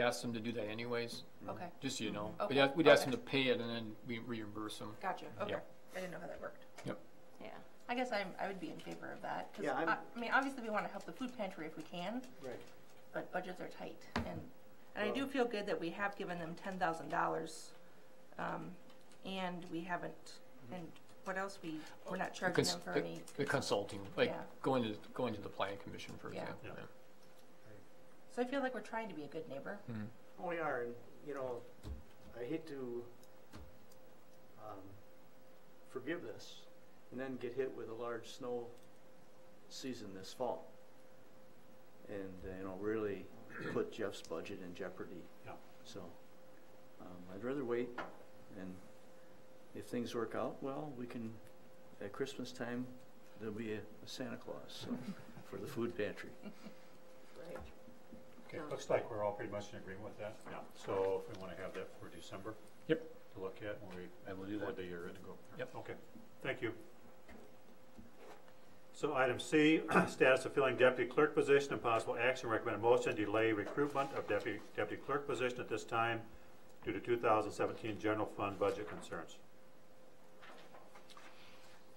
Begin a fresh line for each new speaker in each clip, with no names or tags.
asked them to do that anyways,
Okay,
just so you know.
Okay.
We'd ask, we'd ask them to
Okay.
pay it and then we reimburse them.
gotcha, okay.
Yeah.
I didn't know how that worked.
Yep.
Yeah, I guess I'm, I would be in favor of that, 'cause
Yeah, I'm-
I, I mean, obviously we wanna help the food pantry if we can,
Right.
but budgets are tight, and, and I do
Well-
feel good that we have given them ten thousand dollars, um, and we haven't,
Mm-hmm.
and what else, we, we're not charging
Cons-
them for
Oh, the-
any,
The consulting, like
Yeah.
going to, going to the planning commission, for
Yeah.
example.
Yeah.
so I feel like we're trying to be a good neighbor.
We are, Oh, and, you know, I hate to, um, forgive this and then get hit with a large snow season this fall. And, uh, you know, really put Jeff's budget in jeopardy.
Yeah.
So, um, I'd rather wait and if things work out, well, we can, at Christmas time, there'll be a a Santa Claus, so, for the food pantry.
Right.
Okay, looks like we're all pretty much in agreement with that. Yeah. So if we wanna have that for December.
Yep.
To look at when we
I will do
Or
that.
the year in ago.
Yep.
Okay, thank you. So item C, status of filling deputy clerk position and possible action, recommend a motion to delay recruitment of deputy, deputy clerk position at this time due to two thousand seventeen general fund budget concerns.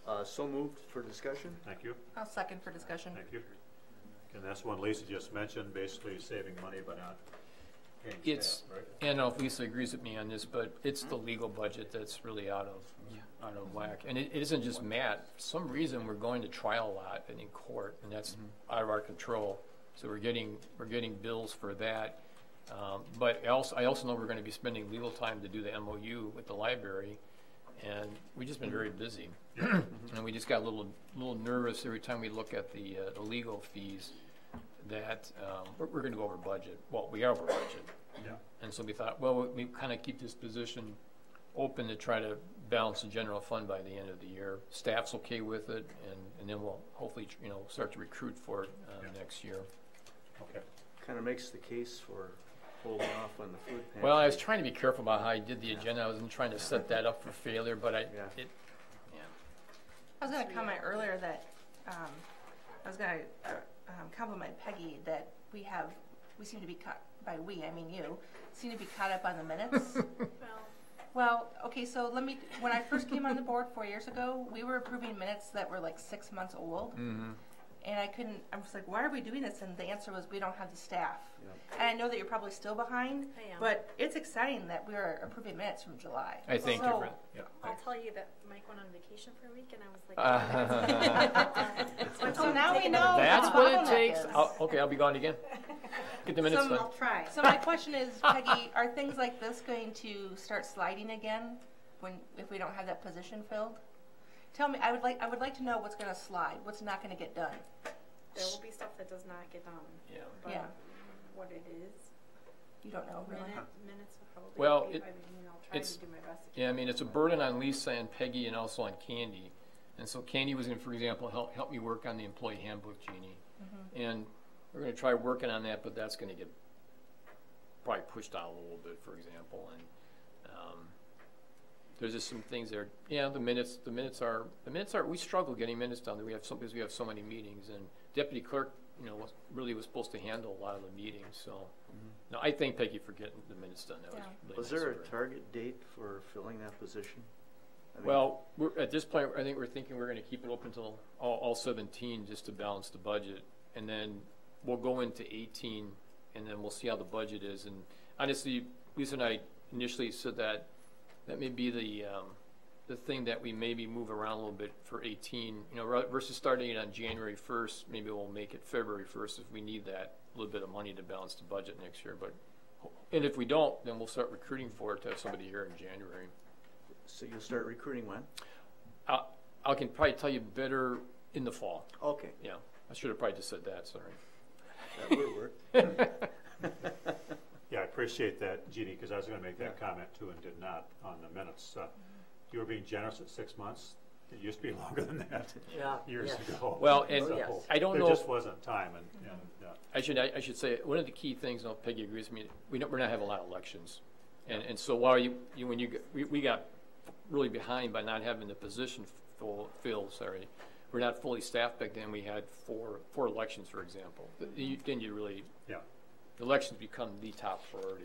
Uh, so moved for discussion?
Thank you,
I'll second for discussion.
thank you. And that's one Lisa just mentioned, basically saving money but not paying staff,
It's-
right?
And I don't know if Lisa agrees with me on this, but it's the legal budget that's really out of, out of whack. And it it isn't just Matt. For some reason, we're going to trial a lot and in court, and that's out of our control. So we're getting, we're getting bills for that. Um, But I also, I also know we're gonna be spending legal time to do the MOU with the library, and we've just been very busy. And we just got a little, little nervous every time we look at the, uh, the legal fees, that, um, we're, we're gonna go over budget. Well, we are over budget.
Yeah.
And so we thought, well, we kind of keep this position open to try to balance the general fund by the end of the year. Staff's okay with it, and, and then we'll hopefully, you know, start to recruit for it,
Yeah.
uh, next year.
Okay,
kind of makes the case for holding off on the food pantry.
Well, I was trying to be careful about how I did the agenda, I wasn't trying to set that up for failure, but I,
Yeah.
it,
I was gonna comment earlier that, um, I was gonna, uh, um, compliment Peggy that we have, we seem to be caught, by we, I mean you, seem to be caught up on the minutes. Well, okay, so let me, when I first came on the board four years ago, we were approving minutes that were like six months old.
Mm-hmm.
And I couldn't, I was like, why are we doing this? And the answer was, we don't have the staff.
Yep.
And I know that you're probably still behind,
I am.
but it's exciting that we are approving minutes from July.
I think
So-
different, yeah.
I'll tell you that Mike went on vacation for a week, and I was like,
Uh,
So now we know.
That's
the
what it
bottleneck
takes,
is.
I'll, okay, I'll be gone again. Get the minutes
Some-
done.
I'll
try.
So my question is, Peggy, are things like this going to start sliding again when, if we don't have that position filled? Tell me, I would like, I would like to know what's gonna slide, what's not gonna get done.
There will be stuff that does not get done,
Yeah.
but
Yeah.
what it is,
You don't know, really?
minute, minutes will probably.
Well,
be-
it-
I mean, I'll try
it's-
to do my best. to
Yeah, I
keep
mean, it's a burden on Lisa and Peggy and also on Candy. And so Candy was gonna, for example, help, help me work on the employee handbook, Jeannie. And we're gonna try working on that, but that's gonna get probably pushed out a little bit, for example, and, um, there's just some things that are, yeah, the minutes, the minutes are, the minutes are, we struggle getting minutes done, we have some, because we have so many meetings, and deputy clerk, you know, was, really was supposed to handle a lot of the meetings, so. No, I thank Peggy for getting the minutes done, that was
Yeah.
really
Was
nice
there a
of her.
target date for filling that position? I mean,
Well, we're, at this point, I think we're thinking we're gonna keep it open till all, all seventeen, just to balance the budget. And then we'll go into eighteen, and then we'll see how the budget is. And honestly, Lisa and I initially said that, that may be the, um, the thing that we maybe move around a little bit for eighteen. You know, ra- versus starting it on January first, maybe we'll make it February first if we need that little bit of money to balance the budget next year, but. And if we don't, then we'll start recruiting for it to have somebody here in January.
So you'll start recruiting when?
I I can probably tell you better in the fall.
Okay,
Yeah, I should have probably just said that, sorry.
that would work.
yeah, I appreciate that, Jeannie, cause I was gonna make that comment too and did not on the minutes. Uh, You were being generous at six months, it used to be longer than that.
Yeah. Oh,
years ago.
Well, and
So,
Yes.
I don't know
There
if-
just wasn't time, and, and, uh,
I should, I I should say, one of the key things, and Peggy agrees with me, we don't, we're not having a lot of elections. And, and so while you, you, when you, g- we, we got really behind by not having the position full, filled, sorry. We're not fully staffed back then, we had four, four elections, for example. But you- Then you really,
yeah,
elections become the top priority.